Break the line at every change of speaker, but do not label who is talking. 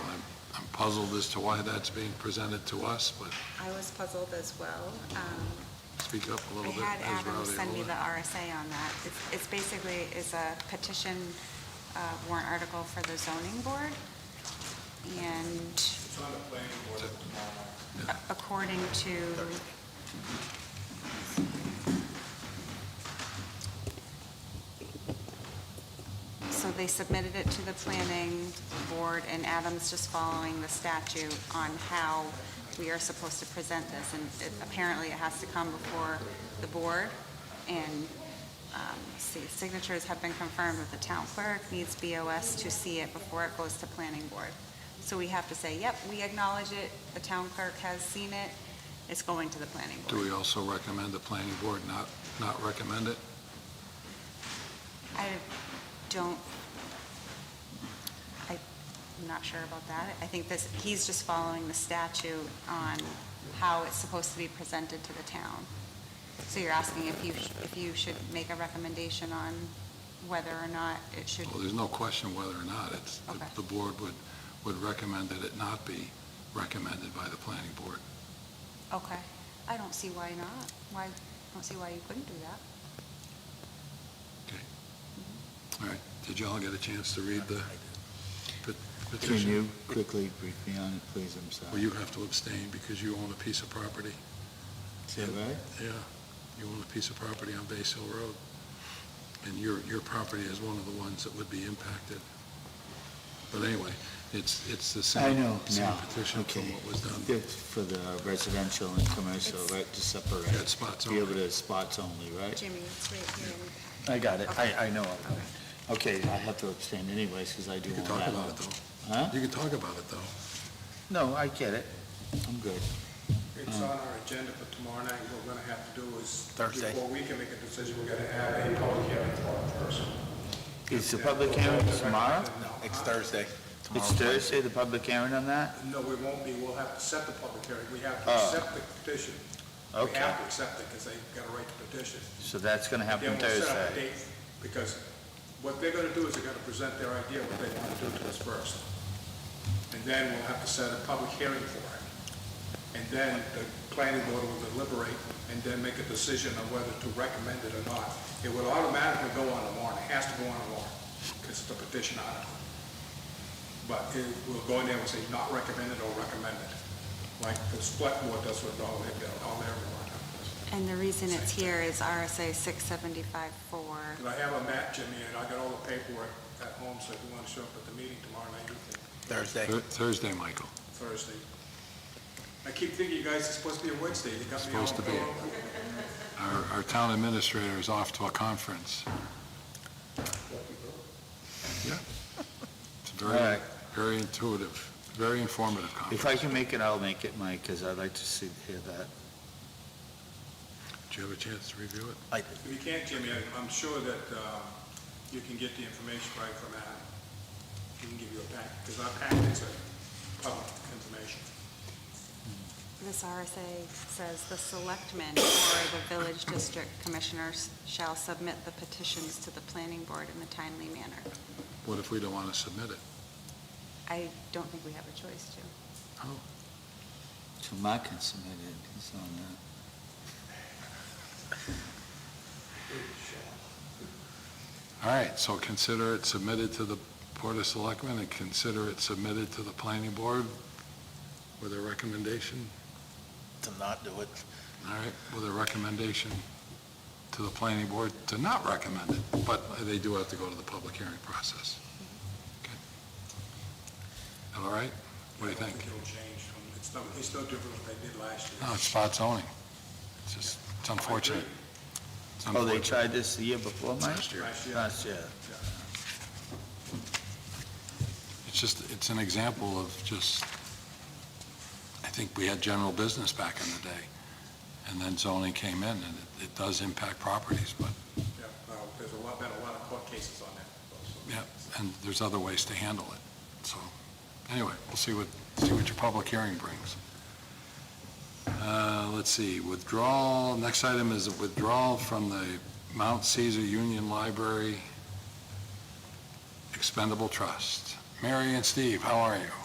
puzzled as to why that's being presented to us, but
I was puzzled as well. Um,
speak up a
I
little bit.
had
as
Adam
Rowdy
send me
Ruler.
the RSA on that. It's- It's basically, is a petition uh, warrant article for the zoning board, and
It's on the planning board tomorrow.
a- according to, so they submitted it to the planning board, and Adam's just following the statute on how we are supposed to present this, and it- apparently it has to come before the board, and, um, see, signatures have been confirmed with the town clerk, needs BOS to see it before it goes to planning board. So we have to say, yep, we acknowledge it, the town clerk has seen it, it's going to the planning
Do
board.
we also recommend the planning board not, not recommend it?
I don't, I- I'm not sure about that. I think this, he's just following the statute on how it's supposed to be presented to the town. So you're asking if you, sh- if you should make a recommendation on whether or not it should,
Well, there's no question whether or not it's, the-
Okay.
the board would, would recommend that it not be recommended by the planning board.
okay. I don't see why not. Why, I don't see why you couldn't do that.
All right, did y'all get a chance to read the pe-
Can
petition?
you quickly brief me on it, please? I'm sorry.
Well, you have to abstain because you own a piece of property.
Is that right?
Yeah, you own a piece of property on Base Hill Road, and your, your property is one of the ones that would be impacted. But anyway, it's, it's the
I
same,
know,
same
now,
petition
okay.
from what was done.
That's for the residential and commercial, right, to separate.
Yeah, it's spots
Be able
only.
to spots only, right?
Jimmy, it's right here in the
I got it,
Okay.
I, I know. it. Okay, I have to abstain anyways, because I do
You can
own
talk
that
about
one.
it, though.
Huh?
You can talk about it, though.
No, I get it. I'm good.
It's on our agenda for tomorrow night, what we're gonna have to do is. Thursday. Before we can make a decision, we're gonna have a public hearing for it first.
Is the public hearing tomorrow?
It's Thursday.
It's Thursday, the public hearing on that?
No, we won't be, we'll have to set the public hearing, we have to
Oh.
accept the petition. We
Okay,
have to accept it, because they've got a right to petition.
so that's going to happen
Then we'll set up a
Thursday.
date, because what they're gonna do is they're gonna present their idea, what they wanna do to us first. And then we'll have to set a public hearing for it. And then the planning board will deliberate and then make a decision on whether to recommend it or not. It will automatically go on the warrant, it has to go on the warrant, because it's a petition article. But it will go in there and say not recommended or recommended, like the select board does with all their, all their warrant articles.
And the reason it's here is RSA 675-4.
Because I have a map, Jimmy, and I got all the paperwork at home, so if you want to show up at the meeting tomorrow night, you can,
Thursday.
Thur- Thursday, Michael,
Thursday. I keep thinking you guys are supposed to be a Wednesday, you got me all...
Supposed to be. our, our town administrator is off to a conference. Yeah. It's
All
very,
right,
very intuitive, very informative
if
conference.
I can make it, I'll make it, Mike, because I'd like to see, hear that.
Did you have a chance to review it?
If you can't, Jimmy, I- I'm sure that uh, you can get the information right from Adam. He can give you a pack, because our packets are public information.
This RSA says, "The selectmen or the village district commissioners shall submit the petitions to the planning board in a timely manner."
What if we don't want to submit it?
I don't think we have a choice to.
So Mark can submit it, he's on that.
All right, so consider it submitted to the Board of Selectmen and consider it submitted to the Planning Board with a recommendation,
To not do it.
all right, with a recommendation to the Planning Board to not recommend it, but they do have to go to the public hearing process. Okay. All right? What do you
I don't
think?
it'll change from, it's no, it's no different than they did last year.
No, it's spot zoning. It's just, it's unfortunate. It's
Oh, they
unfortunate.
tried this the year before, Mike?
Last year.
Last year.
Last year.
It's just, it's an example of just, I think we had general business back in the day, and then zoning came in, and it- it does impact properties, but,
Yeah, well, There's a lot, been a lot of court cases on that. also.
yeah, and there's other ways to handle it. So, anyway, we'll see what, see what your public hearing brings. Uh, Let's see, withdrawal, next item is withdrawal from the Mount Caesar Union Library Expendable Trust. Mary and Steve, how are you?